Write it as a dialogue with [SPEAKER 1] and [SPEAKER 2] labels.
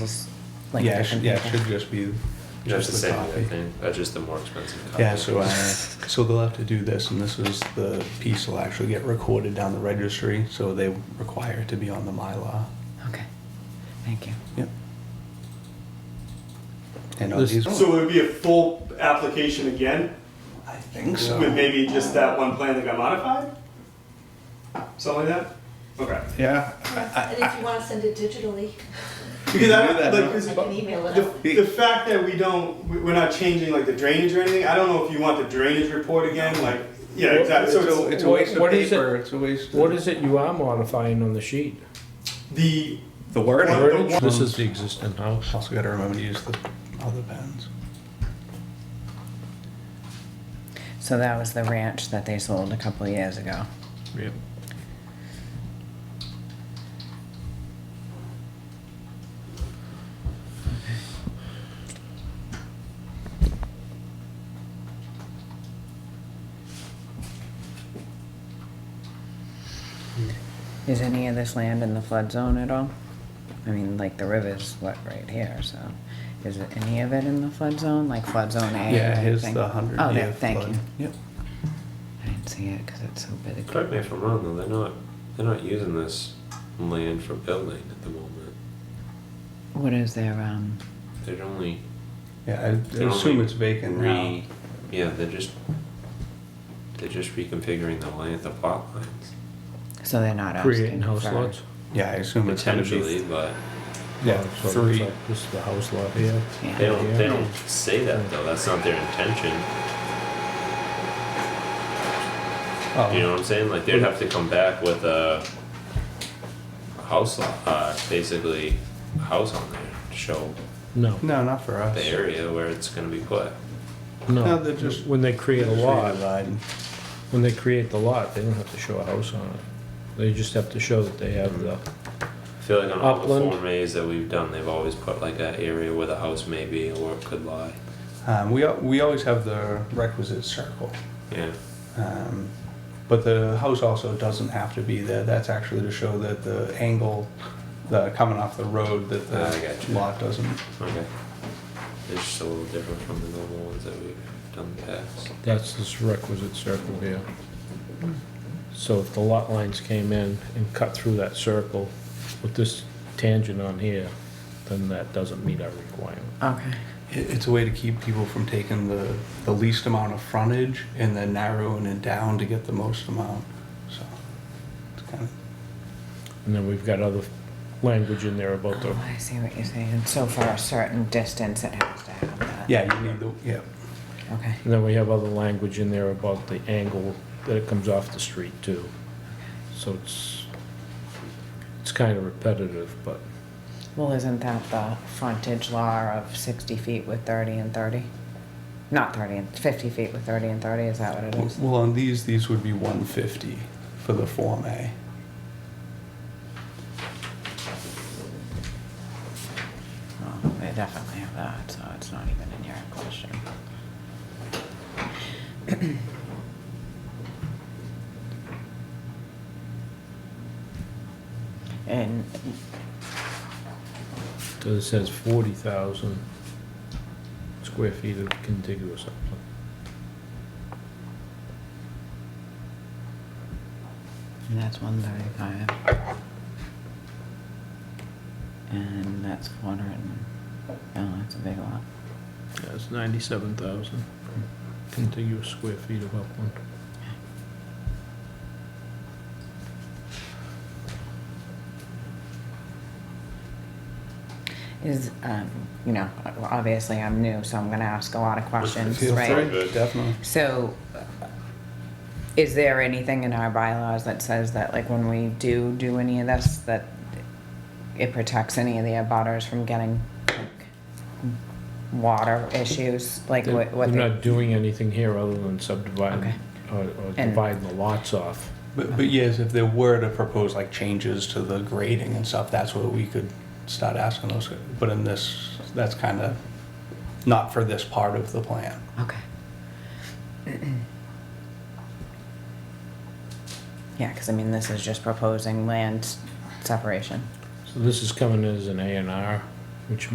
[SPEAKER 1] Like
[SPEAKER 2] yeah, it should,
[SPEAKER 1] different
[SPEAKER 2] yeah, it
[SPEAKER 1] people?
[SPEAKER 2] should just be
[SPEAKER 3] You have
[SPEAKER 2] just
[SPEAKER 3] to
[SPEAKER 2] the
[SPEAKER 3] say
[SPEAKER 2] coffee.
[SPEAKER 3] that thing. That's just the more expensive copy.
[SPEAKER 2] Yeah, so uh, so they'll have to do this, and this is the piece will actually get recorded down the registry. So they require it to be on the MyLaw.
[SPEAKER 1] Okay, thank you.
[SPEAKER 2] Yep. And all these.
[SPEAKER 4] So would it be a full application again,
[SPEAKER 2] I think
[SPEAKER 4] with maybe just that one plan that got modified? Something like that? Okay.
[SPEAKER 2] Yeah.
[SPEAKER 5] And if you want to send it digitally,
[SPEAKER 4] Because
[SPEAKER 2] do
[SPEAKER 4] I,
[SPEAKER 2] that,
[SPEAKER 4] like,
[SPEAKER 2] no?
[SPEAKER 4] is-
[SPEAKER 5] I can email it out.
[SPEAKER 4] the, the fact that we don't, we- we're not changing like the drainage or anything, I don't know if you want the drainage report again, like, yeah, exactly, so
[SPEAKER 2] It's
[SPEAKER 4] it's
[SPEAKER 2] a waste of
[SPEAKER 6] What is it-
[SPEAKER 2] paper. It's a waste.
[SPEAKER 6] What is it you are modifying on the sheet?
[SPEAKER 4] the,
[SPEAKER 2] the word?
[SPEAKER 4] Wordage?
[SPEAKER 6] This is the existing house.
[SPEAKER 2] Also, got to remember to use the other pens.
[SPEAKER 1] So that was the ranch that they sold a couple of years ago.
[SPEAKER 6] Yep.
[SPEAKER 1] Is any of this land in the flood zone at all? I mean, like the river's what right here, so is it any of it in the flood zone, like flood zone A? or
[SPEAKER 2] Yeah, here's
[SPEAKER 1] anything?
[SPEAKER 2] the hundred
[SPEAKER 1] Oh,
[SPEAKER 2] year
[SPEAKER 1] there, thank
[SPEAKER 2] flood.
[SPEAKER 1] you.
[SPEAKER 2] Yep.
[SPEAKER 1] I didn't see it because it's so big.
[SPEAKER 3] Correct me if I'm wrong, though. They're not. They're not using this land for building at the moment.
[SPEAKER 1] What is their, um,
[SPEAKER 3] They're only
[SPEAKER 2] Yeah, I- I
[SPEAKER 3] They're
[SPEAKER 2] assume
[SPEAKER 3] only
[SPEAKER 2] it's vacant now.
[SPEAKER 3] re. Yeah, they're just. They're just reconfiguring the land, the plot lines,
[SPEAKER 1] so they're not asking for.
[SPEAKER 6] Creating house lots.
[SPEAKER 2] Yeah, I assume it's gonna
[SPEAKER 3] potentially,
[SPEAKER 2] be.
[SPEAKER 3] but
[SPEAKER 2] Yeah,
[SPEAKER 6] So it's
[SPEAKER 2] three.
[SPEAKER 6] like Oh, This is the house lot here.
[SPEAKER 1] Yeah.
[SPEAKER 3] they don't. They
[SPEAKER 6] Yeah.
[SPEAKER 3] don't say that though. That's not their intention. You know
[SPEAKER 2] Oh,
[SPEAKER 3] what I'm saying? Like they'd have to come back with a a house lot, uh, basically a house on there to show
[SPEAKER 6] No,
[SPEAKER 2] no, not for us.
[SPEAKER 3] the area where it's gonna be put.
[SPEAKER 2] No,
[SPEAKER 6] no.
[SPEAKER 2] they're just-
[SPEAKER 6] When they create a
[SPEAKER 2] Just
[SPEAKER 6] lot,
[SPEAKER 2] redesign.
[SPEAKER 6] when they create the lot, they don't have to show a house on it. They just have to show that they have the,
[SPEAKER 3] I feel like on all the
[SPEAKER 6] Upland.
[SPEAKER 3] form A's that we've done, they've always put like an area where the house may be or it could lie.
[SPEAKER 2] Um, we, al- we always have the requisite circle.
[SPEAKER 3] Yeah.
[SPEAKER 2] Um, but the house also doesn't have to be there. That's actually to show that the angle, the coming off the road, that
[SPEAKER 3] Ah, I got
[SPEAKER 2] the
[SPEAKER 3] you.
[SPEAKER 2] lot doesn't.
[SPEAKER 3] Okay. It's just a little different from the normal ones that we've done in the past.
[SPEAKER 6] that's this requisite circle here. So if the lot lines came in and cut through that circle with this tangent on here, then that doesn't meet our requirement.
[SPEAKER 1] Okay,
[SPEAKER 2] It, it's a way to keep people from taking the, the least amount of frontage and then narrowing it down to get the most amount. So it's kind of
[SPEAKER 6] And then we've got other language in there about the,
[SPEAKER 1] oh, I see what you're saying, so for a certain distance it has to have that.
[SPEAKER 2] yeah. You need the yeah.
[SPEAKER 1] Okay,
[SPEAKER 6] and then we have other language in there about the angle that it comes off the street too. So it's, it's kind of repetitive, but
[SPEAKER 1] well, isn't that the frontage law of sixty feet with thirty and thirty? Not thirty and, fifty feet with thirty and thirty, is that what it is?
[SPEAKER 2] Well, on these, these would be 150 for the form A.
[SPEAKER 1] Well, they definitely have that, so it's not even in your question. And,
[SPEAKER 6] so it says forty thousand square feet of contiguous upland.
[SPEAKER 1] and that's one thirty-five. And that's four hundred and, oh, that's a big lot.
[SPEAKER 6] Yeah, it's ninety-seven thousand contiguous square feet of upland.
[SPEAKER 1] Is, um, you know, obviously I'm new, so I'm gonna ask a lot of questions,
[SPEAKER 2] Feel
[SPEAKER 1] right?
[SPEAKER 2] free, definitely.
[SPEAKER 1] So, is there anything in our bylaws that says that, like, when we do do any of this, that it protects any of the abutters from getting, like, water issues, like
[SPEAKER 6] They're
[SPEAKER 1] what, what
[SPEAKER 6] they're
[SPEAKER 1] they?
[SPEAKER 6] not doing anything here other than
[SPEAKER 1] Okay.
[SPEAKER 6] subdividing, or or
[SPEAKER 1] And-
[SPEAKER 6] dividing the lots off.
[SPEAKER 2] But, but yes, if there were to propose like changes to the grading and stuff, that's where we could start asking those. But in this, that's kind of not for this part of the plan.
[SPEAKER 1] Okay. Yeah, cause I mean, this is just proposing land separation.
[SPEAKER 6] So this is coming as an A and R, which